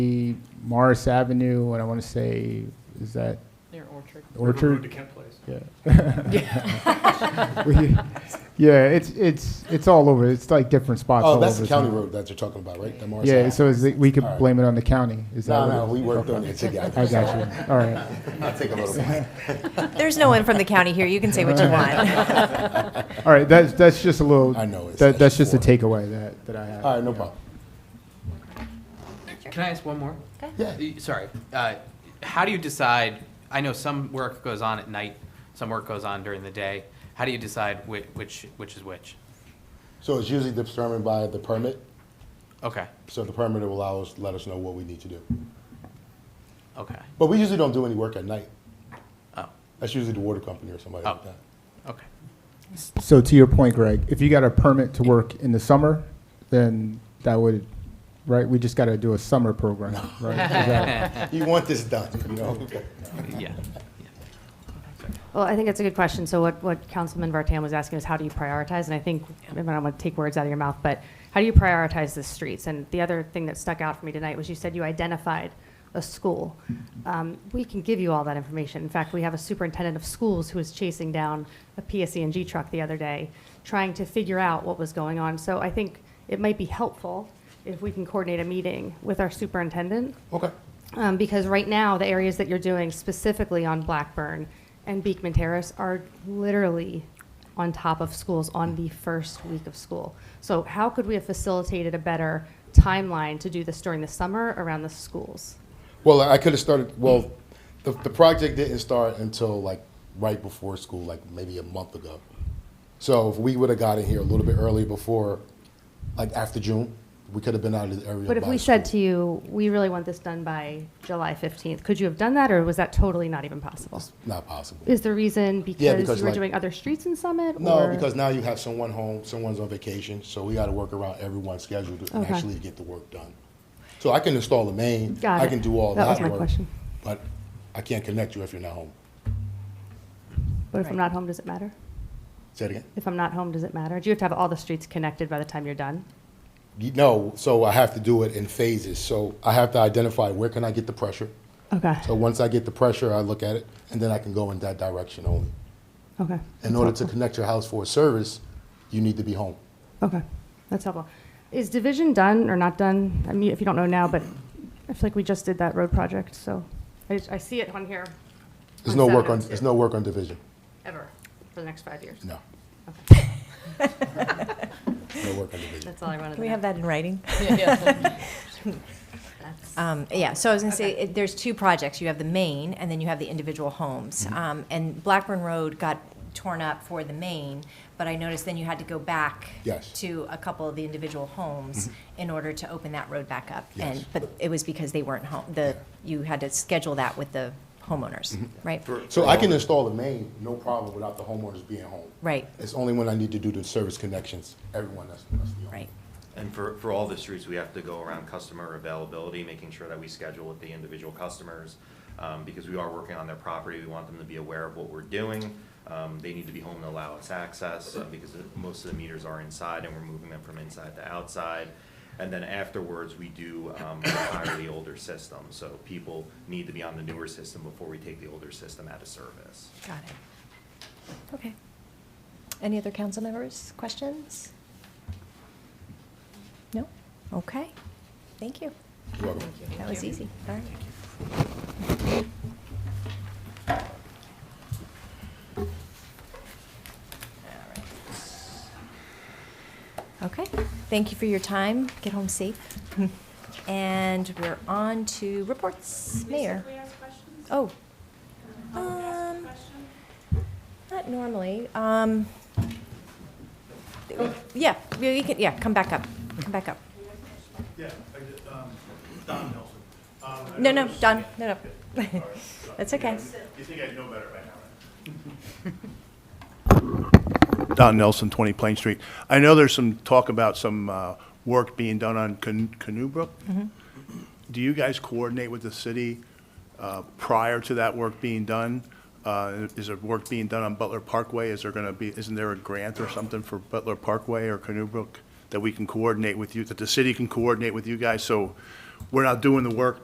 the Morris Avenue, and I want to say, is that Near Orchard. River Road to Orchard? Kent Place. Yeah. We- Yeah, it's, it's, it's all over. It's like different spots all Oh, over. that's the county town. road that you're talking about, right? The Morris Yeah, Ave. so is it, we could All right. blame it on the county? Is that No, what no, it- we worked on okay. it together. I got you. All right. I'll take a little bit. There's no one from the county here. You can say what you want. All right, that's, that's just a little, I know, it's that, that's just a actually takeaway that, that I have. All right, no problem. Can I ask one more? Yeah. Uh, Sorry. Uh, How do you decide, I know some work goes on at night, some work goes on during the day. How do you decide whi- which, which is which? So it's usually determined by the permit. Okay, So the permit will allow us, let us know what we need to do. okay, But we usually don't do any work at night. oh, That's usually the water company or somebody like Oh. that. okay. So to your point, Greg, if you got a permit to work in the summer, then that would, right, we just got to do a summer program, right? Is that- You want this done, you know? Yeah. Well, I think that's a good question. So what, what Councilman Vartan was asking is how do you prioritize? And I think, I mean, I don't want to take words out of your mouth, but how do you prioritize the streets? And the other thing that stuck out for me tonight was you said you identified a school. Um, We can give you all that information. In fact, we have a superintendent of schools who was chasing down a PSENG truck the other day, trying to figure out what was going on. So I think it might be helpful if we can coordinate a meeting with our superintendent Okay. um, because right now, the areas that you're doing specifically on Blackburn and Beekman Terrace are literally on top of schools on the first week of school. So how could we have facilitated a better timeline to do this during the summer around the schools? Well, I could have started, well, the, the project didn't start until like right before school, like maybe a month ago. So if we would have gotten here a little bit early before, like after June, we could have been out of the area. But if by we said school. to you, we really want this done by July 15th, could you have done that, or was that totally not even possible? Not possible. Is the reason because because you were like- doing other streets in Summit? No, or- because now you have someone home, someone's on vacation, so we gotta work around everyone's schedule to Okay. actually get the work done. So I can install the main, Got I it. can do all That that was work. my question. But I can't connect you if you're not home. But if I'm not home, does it matter? Say it again? If I'm not home, does it matter? Do you have to have all the streets connected by the time you're done? You- No, so I have to do it in phases, so I have to identify where can I get the pressure? Okay. So once I get the pressure, I look at it, and then I can go in that direction only. Okay. In order to connect your house for a service, you need to be home. Okay, that's helpful. Is division done or not done? I mean, if you don't know now, but I feel like we just did that road project, so I, just- I see it on here. There's On no work on, Saturdays, there's too. no work on division, Ever, for the next five years. no. No work on division. That's all I wanted to know. Can we have that in writing? Yeah, yeah. Um, yeah, so I was gonna say, it- there's two projects. You have the main, and then you have the individual homes. Mm-hmm. Um, and Blackburn Road got torn up for the main, but I noticed then you had to go back Yes. Mm-hmm. to a couple of the individual homes in order to open that road back up. Yes. And, but it was because they weren't home, the, you had to schedule that with the homeowners, Mm-hmm. right? So I can install the main, no problem, without the homeowners being home. Right, It's only when I need to do the service connections, everyone that's, that's the right. And for, for all the streets, we have to go around customer availability, making sure that we schedule with the individual customers, um, because we are working on their property, we want them to be aware of what we're doing. Um, they need to be home to allow us access, uh, because most of the meters are inside, and we're moving them from inside to outside. And then afterwards, we do, um, retire the older system, so people need to be on the newer system before we take the older system out of service. Got it. Okay. Any other council members, questions? No? Okay. Thank you. You're welcome. That was easy. All right. Okay, thank you for your time. Get home safe. And we're on to reports. Mayor? Oh. Um, Not normally. Um, Yeah, we can, yeah, come back up. Come back up. Yeah, I did, um, Don Nelson. Um, I No, know no, this- Don, no, no. Sorry, sorry. That's okay. You think I'd know better by now, right? Don Nelson, 20 Plain Street. I know there's some talk about some uh, work being done on Can- Canoe Brook. Do you guys coordinate with the city uh, prior to that work being done? Uh, Is there work being done on Butler Parkway? Is there going to be, isn't there a grant or something for Butler Parkway or Canoe Brook that we can coordinate with you, that the city can coordinate with you guys? So we're not doing the work